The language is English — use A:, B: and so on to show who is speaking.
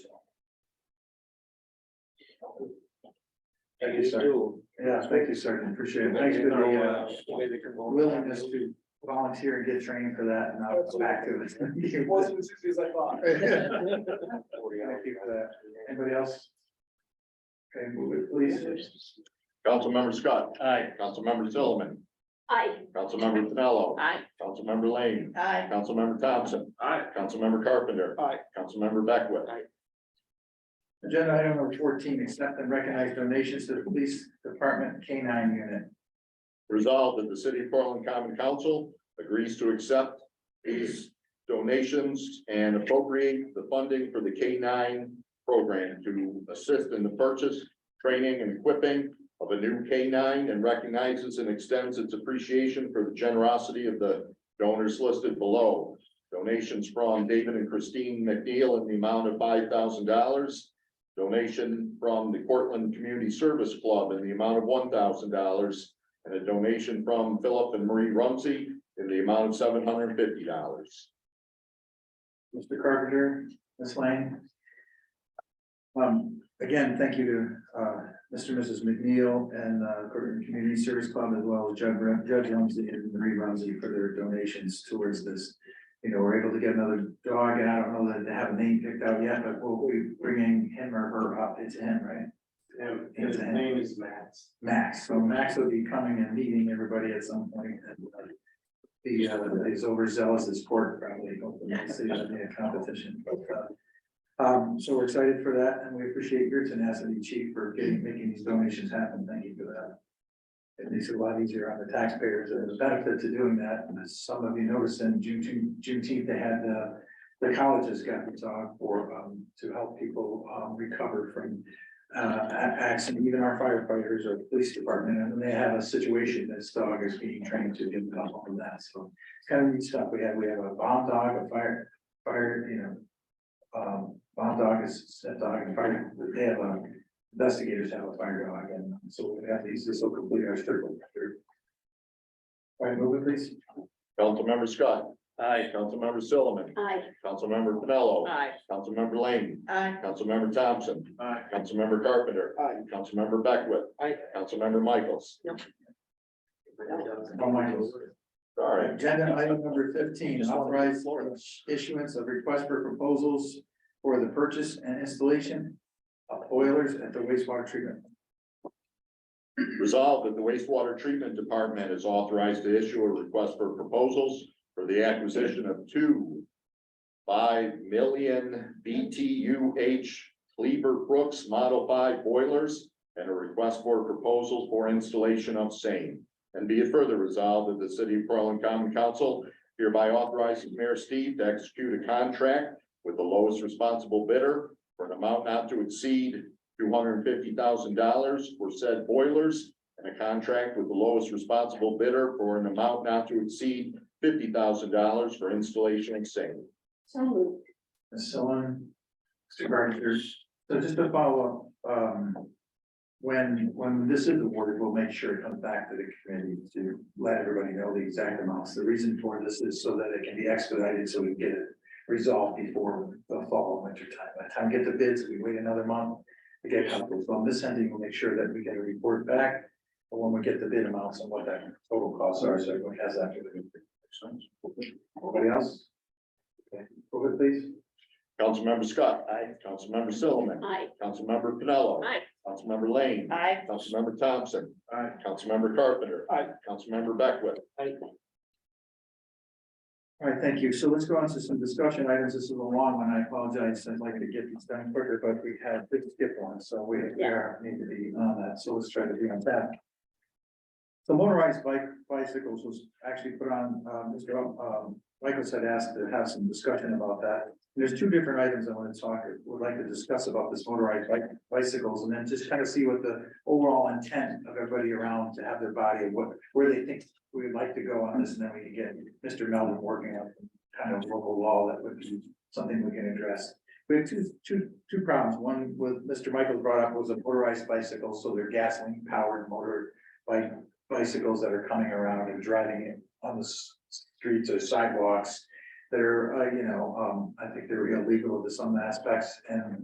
A: Thank you, sir.
B: Yeah, thank you, sir. Appreciate it. Thanks for the uh, willingness to volunteer and get trained for that and I'll go back to it. Thank you
A: It wasn't as easy as I thought.
B: for that. Anybody else? Okay, move it, please.
C: Councilmember Scott,
B: Aye.
C: Councilmember Sullivan,
D: Aye.
C: Councilmember Pinello,
D: Aye.
C: Councilmember Lane,
D: Aye.
C: Councilmember Thompson,
A: Aye.
C: Councilmember Carpenter.
A: Aye.
C: Councilmember Beckwith.
B: Agenda item number fourteen, accept and recognize donations to the police department K nine unit.
C: Resolved that the city of Portland Common Council agrees to accept these donations and appropriate the funding for the K nine program to assist in the purchase, training, and equipping of a new K nine and recognizes and extends its appreciation for the generosity of the donors listed below. Donations from David and Christine McNeil in the amount of five thousand dollars. Donation from the Portland Community Service Club in the amount of one thousand dollars and a donation from Philip and Marie Rumsey in the amount of seven hundred and fifty dollars.
B: Mr. Carpenter, Ms. Lane. Um, again, thank you to, uh, Mr. and Mrs. McNeil and, uh, Corbin Community Service Club as well as Judge Rum- Judge Rumsey and Marie Rumsey for their donations towards this. You know, we're able to get another dog and I don't know that they have a name picked out yet, but we'll be bringing him or her up. It's him, right?
A: His name is Matt.
B: Max, so Max will be coming and meeting everybody at some point. and, uh, He uh, is overzealous as court probably, hopefully, he'll see it in the competition, but, uh. Um, so we're excited for that, and we appreciate your tenacity, chief, for getting, making these donations happen, thank you for that. It makes it a lot easier on the taxpayers, and the benefit to doing that, and as some of you noticed in June, Juneteenth, they had, uh. The colleges got the dog for, um, to help people, um, recover from uh, a- acts, and even our firefighters or police department, and they have a situation this dog is being trained to get help on that, so. It's kind of neat stuff, we have, we have a bomb dog, a fire, fire, you know. Um, bomb dog is a dog, and fire, they have, um, investigators have a fire dog, and so we have these, this will complete our circle. All right, move it please.
C: Councilmember Scott. Aye. Councilmember Sullivan,
D: Aye.
C: Councilmember Pinello.
D: Aye.
C: Councilmember Lane,
D: Aye.
C: Councilmember Thompson,
B: Aye.
C: Councilmember Carpenter.
A: Aye.
C: Councilmember Beckwith.
A: Aye.
C: Councilmember Michaels.
B: Oh, Michael.
C: Sorry.
B: Agenda item number fifteen, authorize issuance of request for proposals for the purchase and installation of boilers at the wastewater treatment.
C: Resolved that the wastewater treatment department is authorized to issue a request for proposals for the acquisition of two five million BTUH Cleaver Brooks Model Five boilers and a request for proposals for installation of same. And be it further resolved that the city of Portland Common Council hereby authorizes Mayor Steve to execute a contract with the lowest responsible bidder for an amount not to exceed two hundred and fifty thousand dollars for said boilers and a contract with the lowest responsible bidder for an amount not to exceed fifty thousand dollars for installation and same.
D: So moved.
B: Ms. Sullivan, Mr. Gardner, so just to follow up, um. When, when this is awarded, we'll make sure it comes back to the committee to let everybody know the exact amounts. The reason for this is so that it can be expedited, so we get it resolved before the fall and winter time. By the time we get the bids, we wait another month to get comfortable. So on this ending, we'll make sure that we get a report back. But when we get the bid amounts and what that total costs are, so everyone has that. Anybody else? Okay, Over please.
C: Councilmember Scott. Aye. Councilmember Solomon.
D: Aye.
C: Councilmember Pinello.
D: Aye.
C: Councilmember Lane.
D: Aye.
C: Councilmember Thompson.
B: Aye.
C: Councilmember Carpenter.
A: Aye.
C: Councilmember Beckwith.
B: All right, thank you. So let's go on to some discussion items. This is a long one. I apologize. I'd like to get these done quicker, but we had big skip one, so we we are- need to be on that. So let's try to be on that. So motorized bike bicycles was actually put on, um, Mr. Up- Um, Michael had asked to have some discussion about that. There's two different items I want to talk, would like to discuss about this motorized bike bicycles and then just kind of see what the overall intent of everybody around to have their body, what, where they think we would like to go on this, and then we can get Mr. Melvin working on kind of local law that would be something we can address. We have two, two, two problems. One with Mr. Michael brought up was a motorized bicycle, so they're gasoline powered motor bike bicycles that are coming around and driving it on the s- streets or sidewalks. That are, uh, you know, um, I think they're illegal to some aspects and